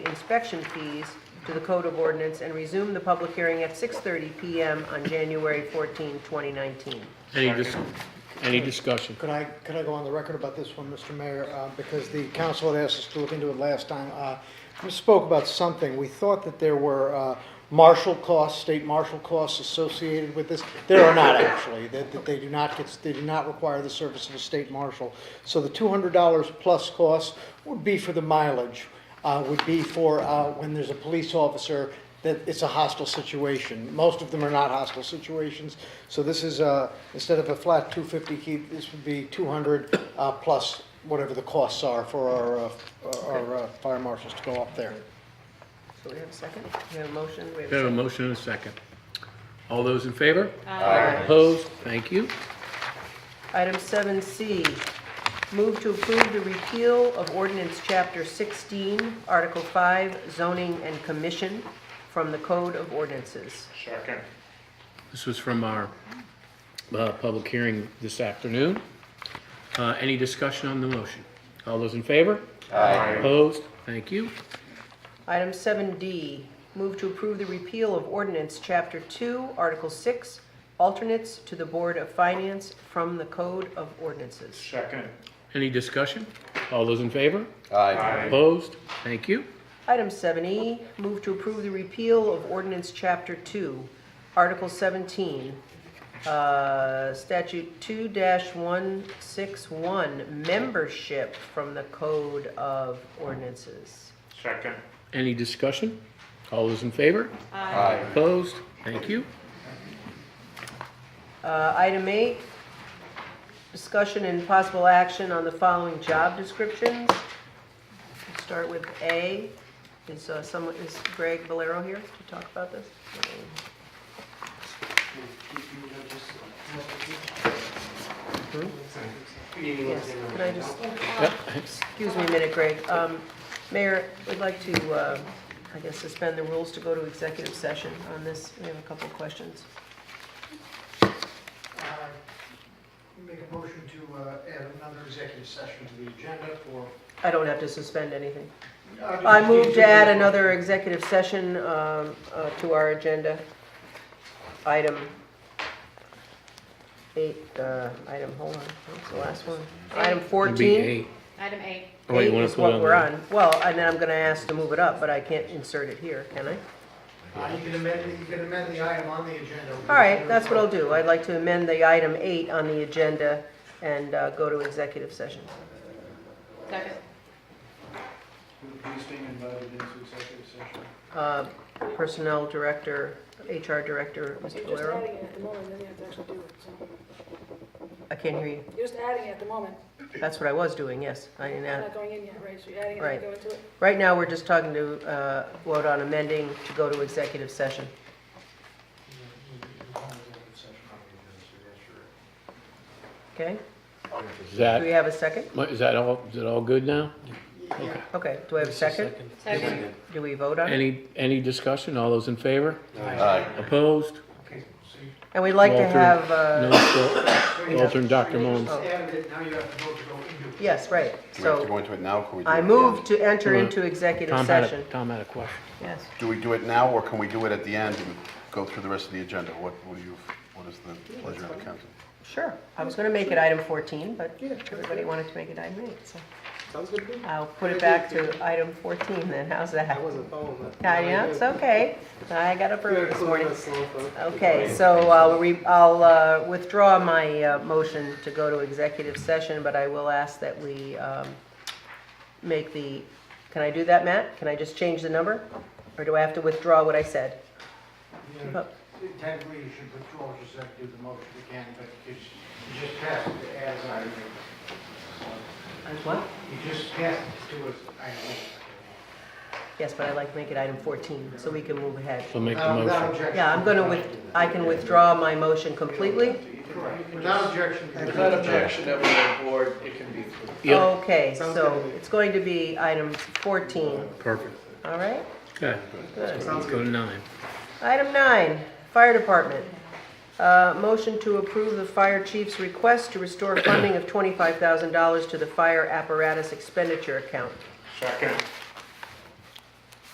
inspection fees to the Code of Ordinance and resume the public hearing at 6:30 PM on January 14, 2019. Any dis, any discussion? Could I, could I go on the record about this one, Mr. Mayor? Uh, Because the council had asked us to look into it last time. Uh, We spoke about something. We thought that there were uh, marshal costs, state marshal costs associated with this. There are not actually, that that they do not get, they do not require the service of a state marshal. So the $200 plus costs would be for the mileage, uh, would be for uh, when there's a police officer that it's a hostile situation. Most of them are not hostile situations. So this is, uh, instead of a flat 250 key, this would be 200 uh, plus whatever the costs are for our, uh, our uh, fire marshals to go up there. So we have a second? We have a motion? We have We a have a second? motion and a second. All those in favor? Aye. Opposed? Thank you. Item 7C, move to approve the repeal of ordinance Chapter 16, Article 5, zoning and commission from the Code of Ordinances. Second. This was from our uh, public hearing this afternoon. Uh, Any discussion on the motion? All those in favor? Aye. Opposed? Thank you. Item 7D, move to approve the repeal of ordinance Chapter 2, Article 6, alternates to the Board of Finance from the Code of Ordinances. Second. Any discussion? All those in favor? Aye. Opposed? Thank you. Item 7E, move to approve the repeal of ordinance Chapter 2, Article 17, uh, Statute 2-161, membership from the Code of Ordinances. Second. Any discussion? All those in favor? Aye. Opposed? Thank you. Uh, Item 8, discussion and possible action on the following job descriptions. Let's Start with A. Is uh, someone, is Greg Valero here to talk about this? Yes, can I just, excuse me a minute, Greg. Um, Mayor, we'd like to, uh, I guess, suspend the rules to go to executive session on this. We have a couple of questions. Make a motion to uh, add another executive session to the agenda for. I don't have to suspend anything. I move to add another executive session um, uh, to our agenda. Item eight, uh, item, hold on, what's the last one? Item It'll be 14. eight. Item eight. Oh, wait, you Eight wanna is put it what we're there? on. Well, and then I'm going to ask to move it up, but I can't insert it here, can I? Uh, You can amend, you can amend the item on the agenda. All right, that's what I'll do. I'd like to amend the item eight on the agenda and uh, go to executive session. Second. Who the police being invited into executive session? Uh, Personnel Director, HR Director, Mr. You're just adding Valero. it at the moment, then you have to actually do it, so. I can't hear you. You're just adding it at the moment, That's what I was doing, yes. I didn't It's add. not going in yet, right, so you're adding it Right. to go into it? Right now, we're just talking to, uh, vote on amending to go to executive session. Okay? Do we Is that, have a second? is that all, is it all good now? Okay, do I have a second? Second. Do we vote on it? Any, any discussion? All those in favor? Aye. Opposed? And we'd like to Walter, have, No, uh, so- Walter and Dr. Mullins. Oh. now you have to vote to go into it. yes, right. Do we have to So go into it now? Can we do it I at the move end? to enter Hold on. into executive Tom had session. a, Tom had a question. Yes. Do we do it now, or can we do it at the end and go through the rest of the agenda? What, what do you, what is the pleasure of the council? Sure, I was gonna make it item 14, but everybody wanted to make it item 8, so. Sounds good I'll put it back to item 14 then, how's that? I wasn't following that. I know, it's okay, I got up early this morning. Okay, so I'll re- I'll uh, withdraw my uh, motion to go to executive session, but I will ask that we um, make the, can I do that, Matt? Can I just change the number? Or do I have to withdraw what I said? Oh. Yeah, Technically, you should withdraw, just have to do the motion again, but you just- you just passed it as I read. What? You just passed it to us, I Yes, but I'd like to make it item 14, so we can move ahead. So make the Um, know. Without motion. objection. Yeah, I'm going to, with. I can withdraw my motion completely? Correct. Without objection. If that objection that we're on board, it can be approved. Yep, Okay, so it's going to be item 14, perfect. all right? Okay, Oh. Good. let's go to nine. Item nine, Fire Department. Uh, Motion to approve the fire chief's request to restore funding of $25,000 to the fire apparatus expenditure account. Second.